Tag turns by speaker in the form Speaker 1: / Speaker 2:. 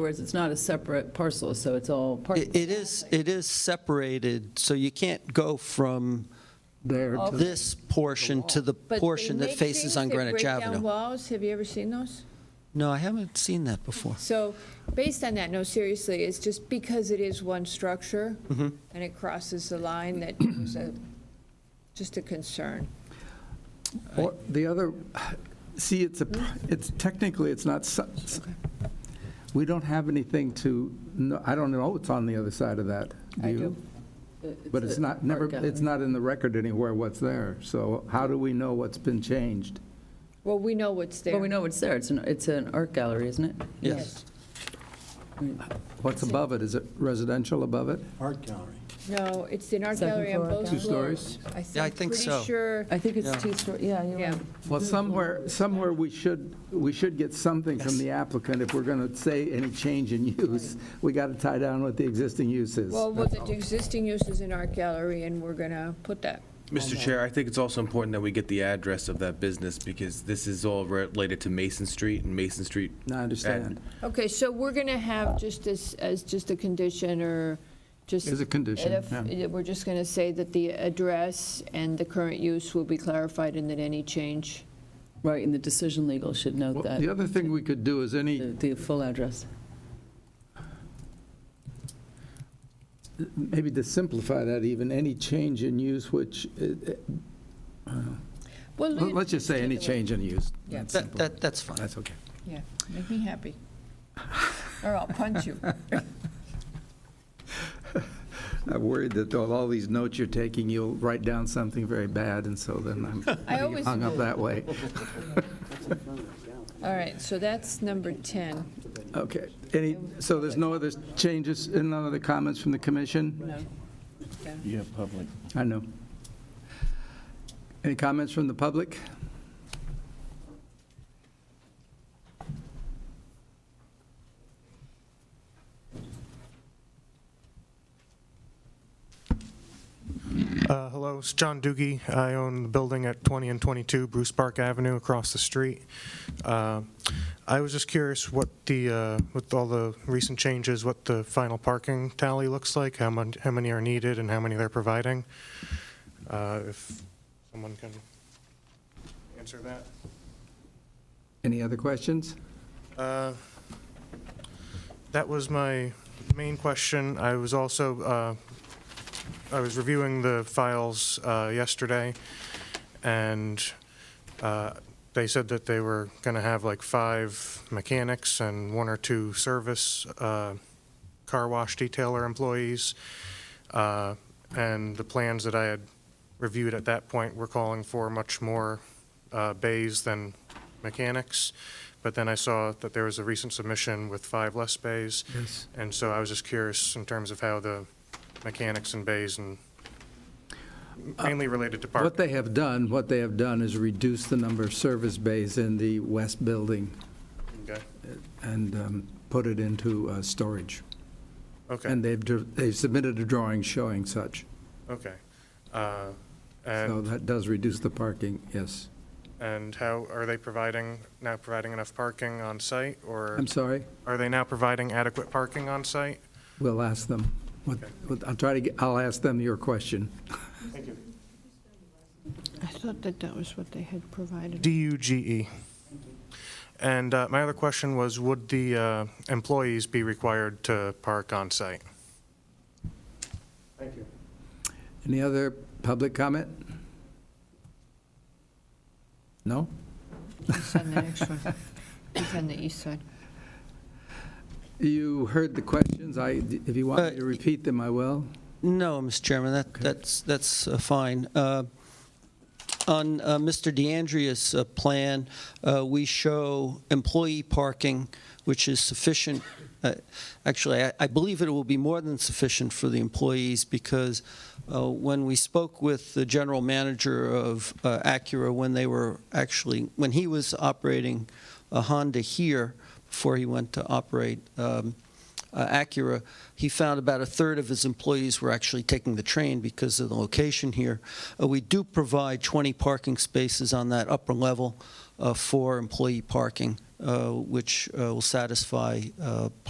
Speaker 1: other words, it's not a separate parcel, so it's all part,
Speaker 2: It it is, it is separated, so you can't go from
Speaker 3: there to
Speaker 2: this portion to the
Speaker 4: But they
Speaker 2: portion that
Speaker 4: make
Speaker 2: faces
Speaker 4: things
Speaker 2: on
Speaker 4: that
Speaker 2: Greenwich
Speaker 4: Break down
Speaker 2: Avenue.
Speaker 4: walls, have you ever seen those?
Speaker 2: No, I haven't seen that before.
Speaker 4: So, based on that, no, seriously, it's just because it is one structure,
Speaker 2: Mm-hmm.
Speaker 4: and it crosses the line, that was a, just a concern.
Speaker 3: Or The other, see, it's a, it's technically, it's not, su- we don't have anything to, no, I don't know what's on the other side of that. Do
Speaker 1: I
Speaker 3: you?
Speaker 1: do.
Speaker 3: But it's
Speaker 1: a
Speaker 3: not, never,
Speaker 1: art
Speaker 3: it's
Speaker 1: gallery.
Speaker 3: not in the record anywhere what's there. So how do we know what's been changed?
Speaker 4: Well, we know what's there.
Speaker 1: Well, we know it's there, it's an, it's an art gallery, isn't it?
Speaker 2: Yes.
Speaker 3: What's above it? Is it residential above it?
Speaker 5: Art gallery.
Speaker 4: No, it's an art
Speaker 1: Second
Speaker 4: gallery on
Speaker 1: floor,
Speaker 4: both
Speaker 3: Two
Speaker 4: floors.
Speaker 3: stories?
Speaker 2: Yeah, I think so.
Speaker 4: Pretty sure,
Speaker 1: I think
Speaker 2: Yeah.
Speaker 1: it's two story, yeah, you're
Speaker 4: yeah.
Speaker 1: right.
Speaker 3: Well, somewhere, somewhere we should, we should get something from
Speaker 2: Yes.
Speaker 3: the applicant if we're going to say any change in use. We got to tie down what the existing use is.
Speaker 4: Well, well, the existing use is an art gallery, and we're gonna put that.
Speaker 6: Mr. Chair, I think it's also important that we get the address of that business because this is all related to Mason Street and Mason Street.
Speaker 3: No, I understand.
Speaker 4: Okay, so we're gonna have just as, as just a condition, or just.
Speaker 3: As a condition,
Speaker 4: if-
Speaker 3: yeah.
Speaker 4: We're just gonna say that the address and the current use will be clarified, and that any change.
Speaker 1: Right, and the decision legal should note
Speaker 3: Well, The
Speaker 1: that,
Speaker 3: other thing we could do is any.
Speaker 1: the the full address.
Speaker 3: maybe to simplify that even, any change in use which, uh,
Speaker 4: Well,
Speaker 3: uh, let's just say any
Speaker 4: take it away.
Speaker 3: change in use.
Speaker 4: Yeah.
Speaker 3: That's
Speaker 2: That,
Speaker 3: simple.
Speaker 2: that- that's fine.
Speaker 3: That's okay.
Speaker 4: Yeah, make me happy. Or I'll punch you.
Speaker 3: I'm worried that all all these notes you're taking, you'll write down something very bad, and so then I'm
Speaker 4: I
Speaker 3: getting
Speaker 4: always
Speaker 3: hung up
Speaker 4: do.
Speaker 3: that way.
Speaker 4: All right, so that's number 10.
Speaker 3: Okay. Any, so there's no other changes, and no other comments from the commission?
Speaker 4: No.
Speaker 5: You have public.
Speaker 3: I know. Any comments from the public?
Speaker 7: Uh, Hello, it's John Doogie. I own the building at 20 and 22 Bruce Park Avenue across the street. Uh, I was just curious what the, uh, with all the recent changes, what the final parking tally looks like, how many, how many are needed and how many they're providing. Uh, If someone can answer that.
Speaker 3: Any other questions?
Speaker 7: Uh, That was my main question. I was also, uh, I was reviewing the files uh, yesterday, and uh, they said that they were going to have like five mechanics and one or two service uh, car wash detailer employees. Uh, And the plans that I had reviewed at that point were calling for much more uh, bays than mechanics. But then I saw that there was a recent submission with five less bays.
Speaker 3: Yes.
Speaker 7: And so I was just curious in terms of how the mechanics and bays and mainly related to
Speaker 3: Uh, What
Speaker 7: parking.
Speaker 3: they have done, what they have done is reduce the number of service bays in the west building
Speaker 7: Okay.
Speaker 3: and um, put it into uh, storage. And
Speaker 7: Okay,
Speaker 3: they've, dr- they've submitted a drawing showing such.
Speaker 7: okay. Uh,
Speaker 3: So
Speaker 7: And,
Speaker 3: that does reduce the parking, yes.
Speaker 7: and how, are they providing, now providing enough parking on site? Or
Speaker 3: I'm sorry,
Speaker 7: are they now providing adequate parking on site?
Speaker 3: we'll ask them. what- what- I'll try to, get- I'll ask them your question.
Speaker 7: Thank you.
Speaker 4: I thought that that was what they had provided.
Speaker 3: E.
Speaker 7: D-U-G-E. And uh, my other question was, would the uh, employees be required to park on site? Thank you.
Speaker 3: Any other public comment? No?
Speaker 4: It's on the next one. It's on the east side.
Speaker 3: You heard the questions, I, if you want me to
Speaker 2: Uh,
Speaker 3: repeat them, I will.
Speaker 2: No, Mr. Chairman, that, that's, that's uh, fine. Uh, On uh, Mr. DeAndrea's uh, plan, uh, we show employee parking, which is sufficient. Uh, Actually, I- I believe it will be more than sufficient for the employees because uh, when we spoke with the general manager of uh, Acura, when they were actually, when he was operating a Honda here, before he went to operate um, uh, Acura, he found about a third of his employees were actually taking the train because of the location here. Uh, We do provide 20 parking spaces on that upper level uh, for employee parking, uh, which uh, will satisfy uh,